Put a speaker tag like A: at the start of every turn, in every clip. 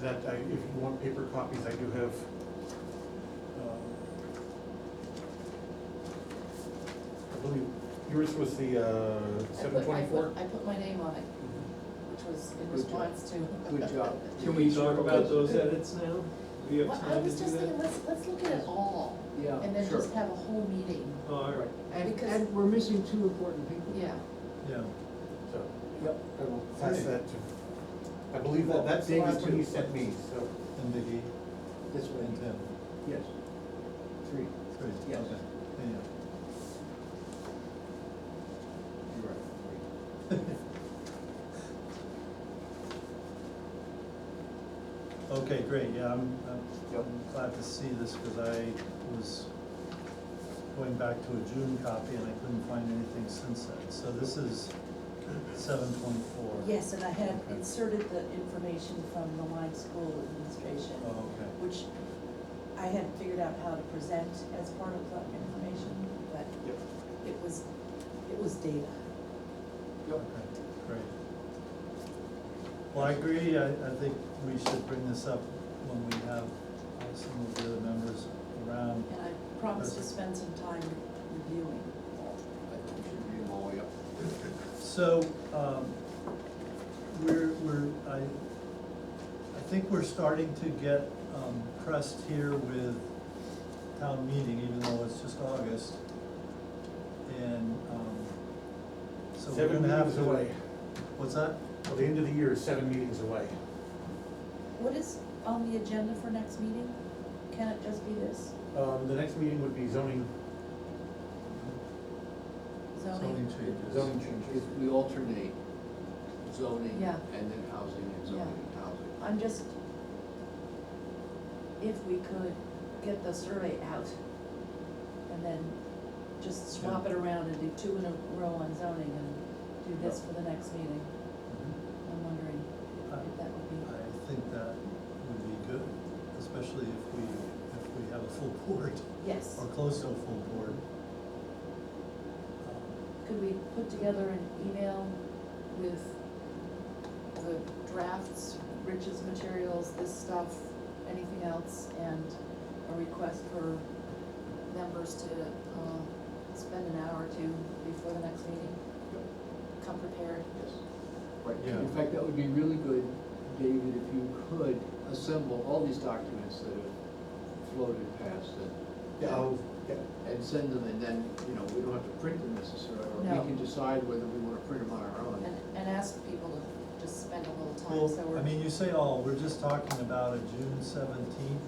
A: that I, if you want paper copies, I do have. uh, I believe yours was the
B: I
A: uh,
B: put- I
A: seven
B: put-
A: twenty-four?
B: I put my name on it, which was in
C: Good job.
B: response to.
C: Good job.
D: Can we talk about those edits now? Do you have
B: Well, I
D: time to
B: was
D: do
B: just thinking,
D: that?
B: let's, let's look at it all,
C: Yeah,
B: and then
C: Oh, sure.
B: just have a whole meeting,
D: Oh, all right,
C: And,
B: because-
C: and we're missing two important people.
B: yeah.
D: yeah.
A: So,
C: Yep, I will.
A: pass that to, I believe that, that's the
C: David
A: last one
C: too.
A: you sent me, so.
E: And Vicky
C: This way,
E: and Tim,
C: yes. Three.
E: three,
C: Yes.
E: okay, yeah.
C: You're right. three.
E: Okay, great, yeah, I'm, I'm
C: Yep.
E: I'm glad to see this, because I was going back to a June copy and I couldn't find anything since then. So this is seven twenty-four.
F: Yes, and I had inserted the information from the Lime School Administration,
E: Oh, okay.
F: which I hadn't figured out how to present as part of the information, but
A: Yep.
F: it was, it was data.
C: Yep.
E: Okay, great. Well, I agree, I, I think we should bring this up when we have uh, some of the other members around.
F: And I promised to spend some time reviewing.
C: I think we should read them all, yep.
E: So, um, we're, we're, I, I think we're starting to get, um, pressed here with town meeting, even though it's just August. And, um, so we're
A: Seven
E: gonna have to.
A: meetings away,
E: What's that?
A: till the end of the year, is seven meetings away.
F: What is on the agenda for next meeting? Can it just be this
A: Um, the next meeting would be zoning,
F: zoning?
E: changes.
C: Zoning changes, we alternate zoning
B: Yeah.
C: and then housing and zoning and housing.
F: I'm just, if we could get the survey out and then just swap it around and do two in a row on zoning and do this for the next meeting. I'm wondering if that would be,
E: Mm-hmm. I think that would be good, especially if we, if we have a full board,
F: yes.
E: or close to a full board. Um,
B: Could we put together an email with the drafts, Rich's materials, this stuff, anything else, and a request for members to, um, spend an hour or two before the next meeting? Come prepared.
C: Yes. Right,
E: Yeah.
C: in fact, that would be really good, David, if you could assemble all these documents that have floated past and.
A: yeah, I'll, yeah,
C: And send them, and then, you know, we don't have to print them necessarily, or
B: No.
C: we can decide whether we wanna print them on our own.
B: And, and ask people to just spend a little time, so
E: Well,
B: we're.
E: I mean, you say all, we're just talking about a June seventeenth,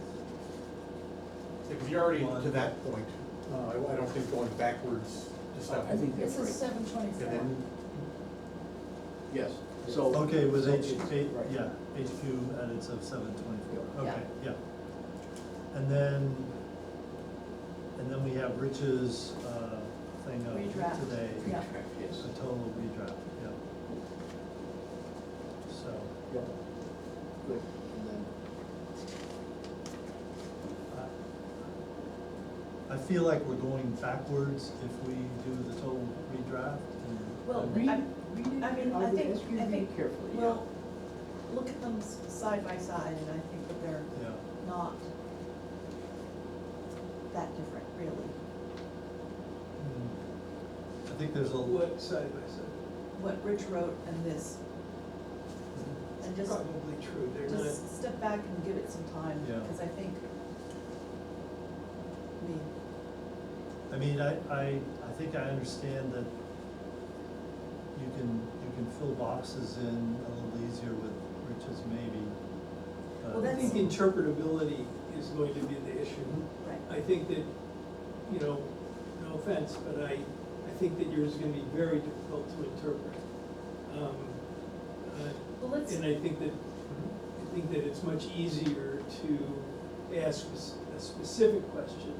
A: because you're already
E: One.
A: to that point. Uh, I, I don't think going backwards to
C: I
A: seven,
C: think that's
B: This is
C: right,
B: seven
A: and
B: twenty-four.
A: then
C: yes, so.
E: okay, with
C: so
E: H,
C: it's-
E: H-
C: right.
E: yeah, HQ edits of seven
C: Yeah.
E: twenty-four,
B: Yeah.
E: okay, yeah. And then, and then we have Rich's, uh, thing of
F: Redraft,
E: today,
F: yeah.
E: a
C: Yes,
E: total redraft, yeah. So,
C: yeah, good, and then.
E: I, I feel like we're going backwards if we do the total redraft and.
F: Well,
E: and-
C: Read,
F: I-
C: read it.
F: I mean,
C: would
F: I think-
C: ask you to
F: I
C: read
F: think-
C: Carefully, yeah.
F: Well, look at them s- side by side, and I think that they're
E: Yeah.
F: not that different, really.
E: Hmm. I think there's a,
D: What side by side?
F: What Rich wrote and this, and
D: It's
F: just
D: Probably true, they're not,
F: Just step back and give it some time,
E: Yeah.
F: because I think, I mean,
E: I mean, I, I, I think I understand that you can, you can fill boxes in a little easier with riches maybe. but-
F: Well,
D: I
F: that's-
D: think interpretability is going to be the issue.
F: right,
D: I think that, you know, no offense, but I, I think that yours is gonna be very difficult to interpret. Um, uh,
B: Well, let's,
D: And I think that, I think that it's much easier to ask a- a specific question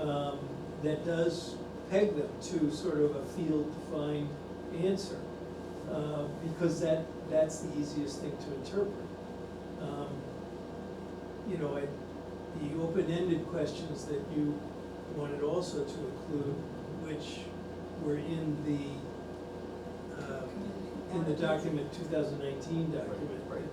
D: um, that does peg them to sort of a field-defined answer, uh, because that, that's the easiest thing to interpret. Um, You know, I- the open-ended questions that you wanted also to include, which were in the, uh, in the document, 2019 document,
C: Right, right.